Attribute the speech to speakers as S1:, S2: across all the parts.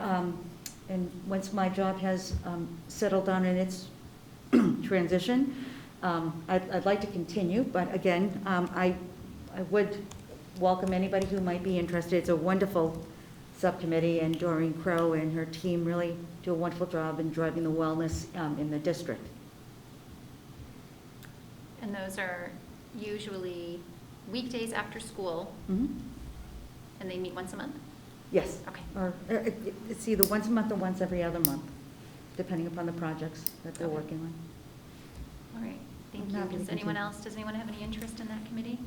S1: Um, once my job has um, settled down in its transition, um, I'd, I'd like to continue, but again, um, I, I would welcome anybody who might be interested. It's a wonderful subcommittee, and Doreen Crow and her team really do a wonderful job in driving the wellness um, in the district.
S2: And those are usually weekdays after school,
S1: Mhm.
S2: and they meet once a month?
S1: Yes.
S2: Mm-hmm. Okay.
S1: Or, uh, it- it's either once a month or once every other month, depending upon the projects that they're
S2: Okay.
S1: working on.
S2: All right, thank
S1: I'm
S2: you.
S1: happy to
S2: Does anyone
S1: continue.
S2: else, does anyone have any interest in that committee?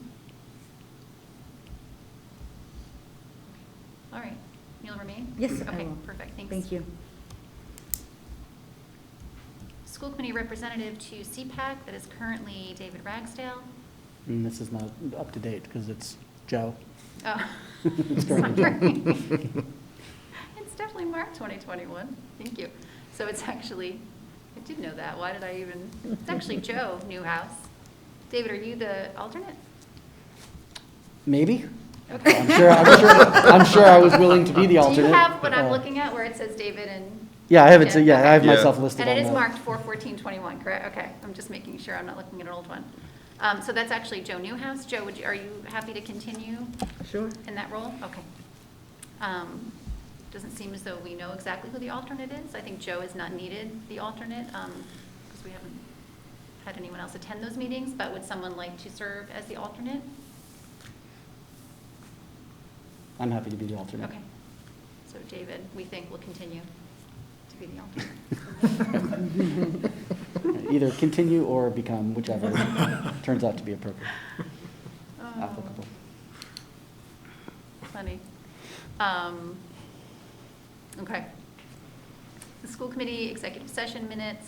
S2: All right, you'll remain?
S1: Yes, I
S2: Okay,
S1: will.
S2: perfect, thanks.
S1: Thank you.
S2: School committee representative to CPAC, that is currently David Ragsdale.
S3: And this is not up to date because it's Joe.
S2: Oh,
S3: It's currently
S2: sorry.
S3: Joe.
S2: It's definitely March 2021. Thank you. So it's actually, I did know that. Why did I even, it's actually Joe Newhouse. David, are you the alternate?
S3: Maybe?
S2: Okay.
S3: I'm sure, I'm sure, I'm sure I was willing to be the
S2: Do
S3: alternate.
S2: you have what
S3: Uh,
S2: I'm looking at where it says David and?
S3: Yeah, I have it, so yeah, I have
S2: okay.
S4: Yeah.
S3: myself listed on
S2: And
S3: that.
S2: it is marked 41421, correct? Okay, I'm just making sure I'm not looking at an old one. Um, So that's actually Joe Newhouse. Joe, would you, are you happy to continue?
S1: Sure.
S2: in that role? Okay. Um, Doesn't seem as though we know exactly who the alternate is. I think Joe is not needed, the alternate, because we haven't had anyone else attend those meetings, but would someone like to serve as the alternate?
S3: I'm happy to be the alternate.
S2: Okay. So David, we think will continue to be the alternate.
S3: Either continue or become, whichever turns out to be appropriate,
S2: Oh.
S3: applicable.
S2: Funny. Um, Okay. The school committee executive session minutes.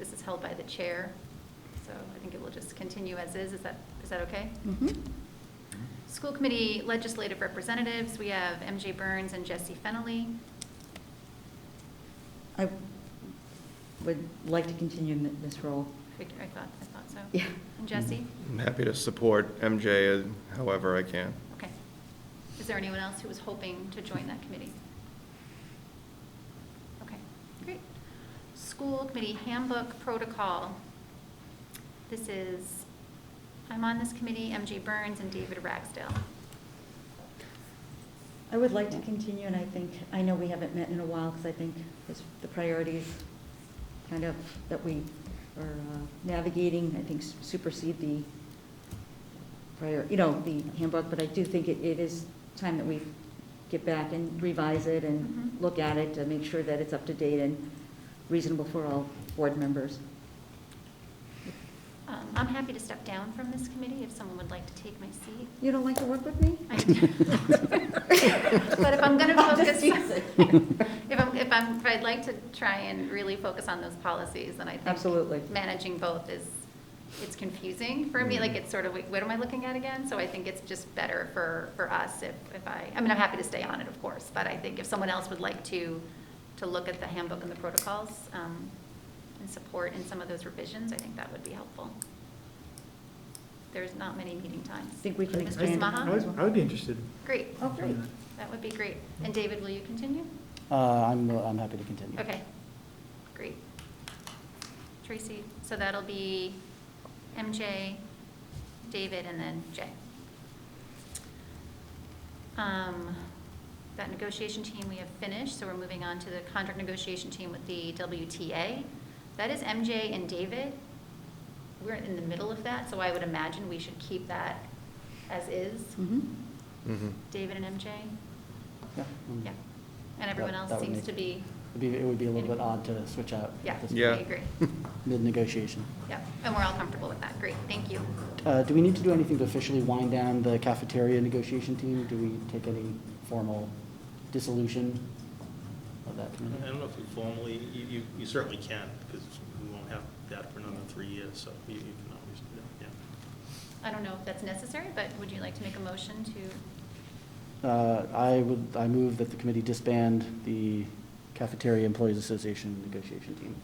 S2: This is held by the chair, so I think it will just continue as is. Is that, is that okay?
S1: Hmm. Mm-hmm.
S2: School committee legislative representatives, we have MJ Burns and Jesse Fennelly.
S1: I would like to continue in this role.
S2: I I thought, I thought so.
S1: Yeah.
S2: And Jesse?
S4: I'm happy to support MJ however I can.
S2: Okay. Is there anyone else who was hoping to join that committee? Okay, great. School Committee Handbook Protocol. This is, I'm on this committee, MJ Burns and David Ragsdale.
S1: I would like to continue, and I think, I know we haven't met in a while, because I think this- the priorities kind of that we are uh, navigating, I think supersede the prior, you know, the handbook, but I do think it it is time that we get back and revise it and
S2: Mhm.
S1: look at it to make sure that it's up to date and reasonable for all board members.
S2: Um, I'm happy to step down from this committee if someone would like to take my seat.
S1: You don't like to work with me?
S2: I- But if I'm going to
S1: I'm just
S2: focus,
S1: teasing.
S2: if I'm, if I'm, if I'd like to try and really focus on those policies, then I think.
S1: Absolutely.
S2: Managing both is, it's confusing for me,
S1: Mm-hmm.
S2: like it's sort of, like, what am I looking at again? So I think it's just better for, for us if, if I, I mean, I'm happy to stay on it, of course, but I think if someone else would like to, to look at the handbook and the protocols um, and support in some of those revisions, I think that would be helpful. There's not many meeting times.
S1: Think we can
S2: Mr.
S1: expand.
S2: Smaha?
S5: I would- I would be interested.
S2: Great.
S1: Oh, great.
S2: That would be great. And David, will you continue?
S3: Uh, I'm, I'm happy to continue.
S2: Okay, great. Tracy, so that'll be MJ, David, and then Jay. Um, That negotiation team we have finished, so we're moving on to the contract negotiation team with the WTA. That is MJ and David. We're in the middle of that, so I would imagine we should keep that as is.
S1: Mhm.
S4: Mhm.
S2: David and MJ?
S3: Yeah. mm.
S2: Yeah, and everyone
S3: That-
S2: else
S3: that would
S2: seems
S3: make-
S2: to be,
S3: It'd be- It would be a little bit odd to switch out.
S2: yeah,
S3: this
S2: I
S4: Yeah.
S2: agree.
S3: Mid-negotiation.
S2: Yeah, and we're all comfortable with that, great, thank you.
S3: Uh, Do we need to do anything to officially wind down the cafeteria negotiation team? Do we take any formal dissolution of that
S6: I
S3: committee?
S6: don't know if you formally, you, you- you certainly can, because we won't have that for another three years, so you, you can always do that, yeah.
S2: I don't know if that's necessary, but would you like to make a motion to,
S3: Uh, I would, I move that the committee disband the Cafeteria Employees Association negotiation team.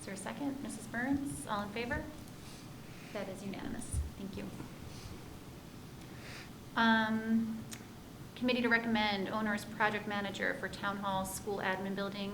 S2: is there a second? Mrs. Burns, all in favor? That is unanimous, thank you. Um, Committee to recommend owners project manager for town hall, school admin building,